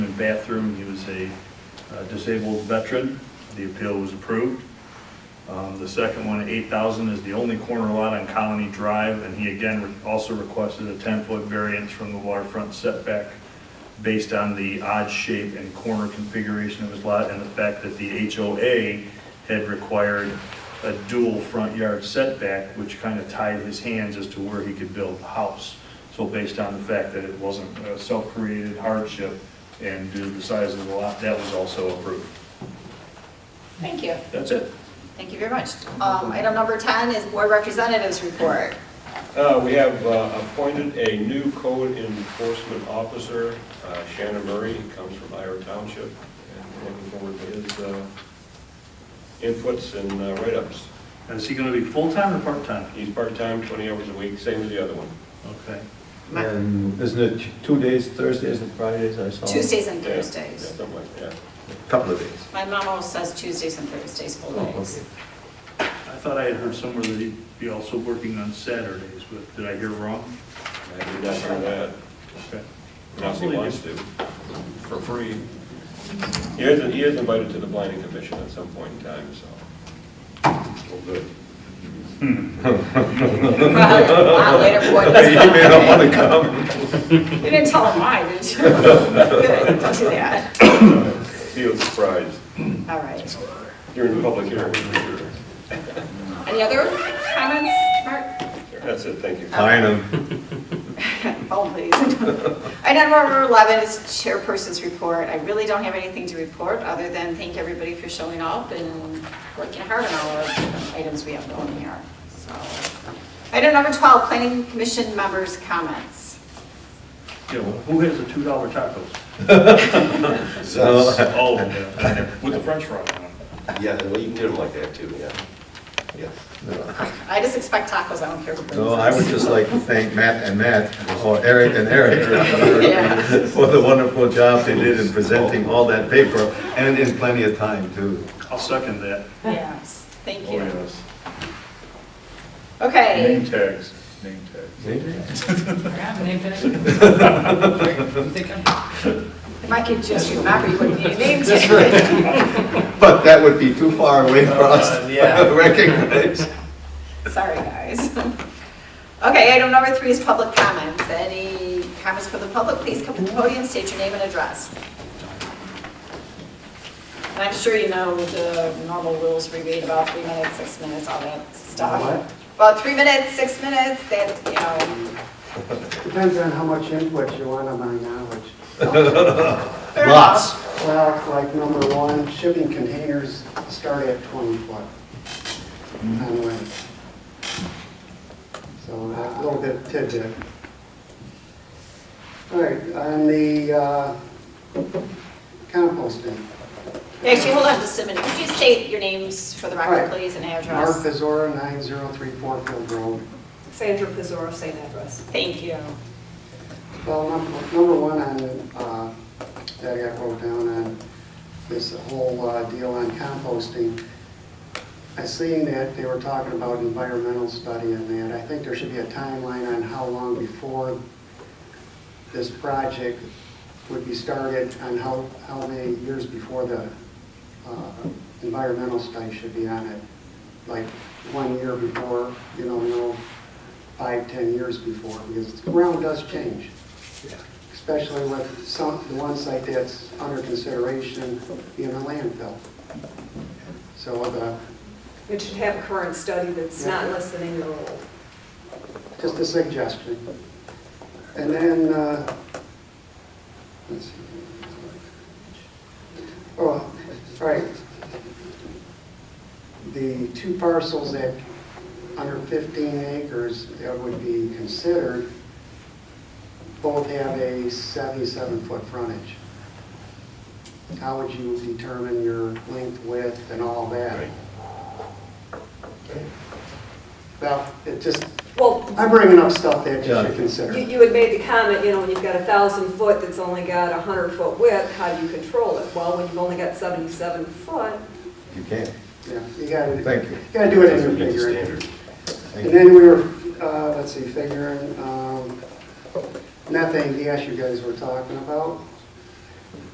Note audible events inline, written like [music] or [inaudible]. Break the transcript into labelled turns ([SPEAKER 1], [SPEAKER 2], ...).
[SPEAKER 1] bathroom. He was a uh, disabled veteran. The appeal was approved. Um, The second one, 8,000, is the only corner lot on Colony Drive, and he again re- also requested a 10-foot variance from the waterfront setback based on the odd shape and corner configuration of his lot and the fact that the HOA had required a dual front yard setback, which kind of tied his hands as to where he could build the house. So based on the fact that it wasn't a self-created hardship and due to the size of the lot, that was also approved.
[SPEAKER 2] Thank you.
[SPEAKER 1] That's it.
[SPEAKER 2] Thank you very much. Um, Item number 10 is Board Representatives Report.
[SPEAKER 3] Uh, We have uh, appointed a new code enforcement officer, uh, Shannon Murray, He comes from Ira Township, and we're looking forward to his uh, inputs and uh, write-ups.
[SPEAKER 1] And is he going to be full-time or part-time?
[SPEAKER 3] He's part-time, 20 hours a week, same as the other one.
[SPEAKER 1] Okay.
[SPEAKER 4] And isn't it two days, Thursdays and Fridays, I saw?
[SPEAKER 2] Tuesdays and
[SPEAKER 3] Yeah,
[SPEAKER 2] Thursdays.
[SPEAKER 3] Yeah, something like that.
[SPEAKER 4] Couple of days.
[SPEAKER 2] My mom always says Tuesdays and Thursdays, full
[SPEAKER 4] Oh,
[SPEAKER 2] days.
[SPEAKER 1] I thought I had heard somewhere that he'd be also working on Saturdays, but did I hear wrong?
[SPEAKER 3] I did not know that.
[SPEAKER 1] Okay.
[SPEAKER 3] Now he wants to, for free. He is, he is invited to the planning commission at some point in time, so. Well, good.
[SPEAKER 4] [laughs]
[SPEAKER 2] Wow, Later, boy. that's
[SPEAKER 4] You may not
[SPEAKER 2] fine.
[SPEAKER 4] wanna come.
[SPEAKER 2] [laughs] You didn't tell him why, did
[SPEAKER 4] [laughs]
[SPEAKER 2] you? Good, don't do that.
[SPEAKER 3] Feel surprised.
[SPEAKER 2] All right.
[SPEAKER 3] You're in public hearing. for sure.
[SPEAKER 2] Any other comments, Mark?
[SPEAKER 3] That's it, thank you.
[SPEAKER 4] Fine, um,
[SPEAKER 2] Phone, Oh, please. Item number 11 is Chairperson's Report. I really don't have anything to report, other than thank everybody for showing up and working hard on all of the items we have going here. So, Item number 12, Planning Commission members' comments.
[SPEAKER 1] Yeah, well, who has the two dollar tacos?
[SPEAKER 4] so,
[SPEAKER 1] Oh, yeah, with the french fry on them.
[SPEAKER 3] Yeah, well, you can do them like that too, yeah. Yeah.
[SPEAKER 2] I just expect tacos, I don't care who brings
[SPEAKER 4] so I would
[SPEAKER 2] this.
[SPEAKER 4] just like to thank Matt and Matt, or Eric [laughs] and Eric,
[SPEAKER 2] Yeah.
[SPEAKER 4] for the wonderful job they did in presenting all that paper, and in plenty of time, too.
[SPEAKER 1] I'll second that.
[SPEAKER 2] Yes, thank
[SPEAKER 3] Oh,
[SPEAKER 2] you.
[SPEAKER 3] yes.
[SPEAKER 2] Okay,
[SPEAKER 3] tags, name tags.
[SPEAKER 2] if I could just remember, you wouldn't need a name tag.
[SPEAKER 4] But that would be too far away for us to [laughs] recognize.
[SPEAKER 2] Sorry, guys. [laughs] Okay, item number three is public comments. Any comments for the public, please come to the podium, state your name and address. And I'm sure you know the normal rules we read about three minutes, six minutes, all that stuff.
[SPEAKER 5] What?
[SPEAKER 2] About three minutes, six minutes, that, you know.
[SPEAKER 5] Depends on how much input you want on my knowledge.
[SPEAKER 2] fair enough.
[SPEAKER 5] Well, like number one, shipping containers start at 20 foot on length. So uh, a little bit tidbit. All right, on the uh, composting.
[SPEAKER 2] Actually, hold on just a minute. Could you state your names for the record,
[SPEAKER 5] Alright.
[SPEAKER 2] please, and
[SPEAKER 5] Mark
[SPEAKER 2] address?
[SPEAKER 5] Pizora, 9034 Field Road.
[SPEAKER 6] Sandra Pizzaro, same address.
[SPEAKER 2] Thank you.
[SPEAKER 5] Well, num- number one on, uh, that I wrote down on this whole uh, deal on composting, I seen that they were talking about environmental study and that. I think there should be a timeline on how long before this project would be started and how, how many years before the uh, environmental study should be on it. Like one year before, you don't know, five, 10 years before, because the ground does change. Especially with some, the one site that's under consideration being a landfill. So the,
[SPEAKER 6] It should have a current study that's not less than a year old.
[SPEAKER 5] just a suggestion. And then, uh, let's see. Oh, all right. The two parcels that, under 15 acres, that would be considered, both have a 77-foot frontage. How would you determine your length, width, and all that?
[SPEAKER 3] Right.
[SPEAKER 5] Well, it just,
[SPEAKER 6] Well,
[SPEAKER 5] I'm bringing up stuff that you
[SPEAKER 4] Yeah.
[SPEAKER 5] should consider.
[SPEAKER 6] you, you had made the comment, you know, when you've got a thousand foot that's only got a hundred foot width, how do you control it? Well, when you've only got seventy-seven foot,
[SPEAKER 4] You can't.
[SPEAKER 5] Yeah, you gotta,
[SPEAKER 4] Thank you.
[SPEAKER 5] you gotta do it in your
[SPEAKER 3] Doesn't meet the
[SPEAKER 5] figure.
[SPEAKER 3] standard.
[SPEAKER 4] Thank
[SPEAKER 5] And
[SPEAKER 4] you.
[SPEAKER 5] then we were, uh, let's see, figuring, um, methane gas you guys were talking about.